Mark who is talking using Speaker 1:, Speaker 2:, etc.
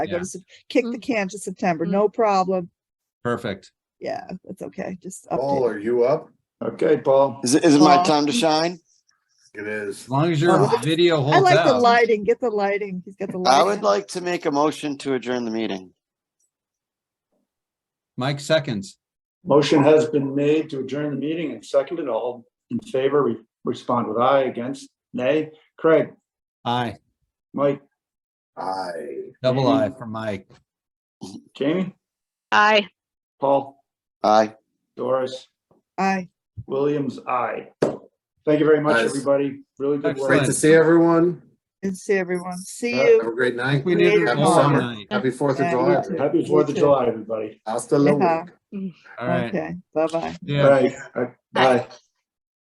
Speaker 1: I go
Speaker 2: Yeah.
Speaker 1: to, Sep- kick the can to September, no problem.
Speaker 2: Perfect.
Speaker 1: Yeah, that's okay, just
Speaker 2: Oh,
Speaker 3: Paul,
Speaker 1: update.
Speaker 3: are you up?
Speaker 4: Okay, Paul.
Speaker 5: Is it, is it my
Speaker 1: Well-
Speaker 5: time to shine?
Speaker 3: It is.
Speaker 2: As long as your
Speaker 1: Oh.
Speaker 2: video
Speaker 1: I
Speaker 2: holds
Speaker 1: like the
Speaker 2: out.
Speaker 1: lighting, get the lighting, he's got the lighting.
Speaker 5: I would like to make a motion to adjourn the meeting.
Speaker 2: Mike seconds.
Speaker 4: Motion has been made to adjourn the meeting and seconded. All in favor, re- respond with aye, against nay. Craig,
Speaker 2: Aye,
Speaker 4: Mike,
Speaker 3: Aye.
Speaker 2: double
Speaker 4: Jamie?
Speaker 2: aye for Mike.
Speaker 4: Jamie,
Speaker 6: Aye.
Speaker 4: Paul,
Speaker 5: Aye.
Speaker 4: Doris,
Speaker 1: Aye,
Speaker 4: Williams, aye. Thank you very much,
Speaker 3: Guys.
Speaker 4: everybody. Really good
Speaker 3: Great
Speaker 4: work.
Speaker 3: to see everyone.
Speaker 1: and see everyone, see
Speaker 2: Uh,
Speaker 3: Have
Speaker 1: you.
Speaker 3: a great
Speaker 2: I
Speaker 3: night.
Speaker 2: think we need an
Speaker 1: Later,
Speaker 2: all
Speaker 1: Paul.
Speaker 2: night.
Speaker 3: Happy Fourth of
Speaker 1: Yeah,
Speaker 3: July.
Speaker 1: you too.
Speaker 4: Happy Fourth of July, everybody.
Speaker 3: Hasta luego.
Speaker 1: Yeah.
Speaker 2: All right.
Speaker 1: Okay, bye-bye.
Speaker 2: Yeah.
Speaker 4: Bye. Bye.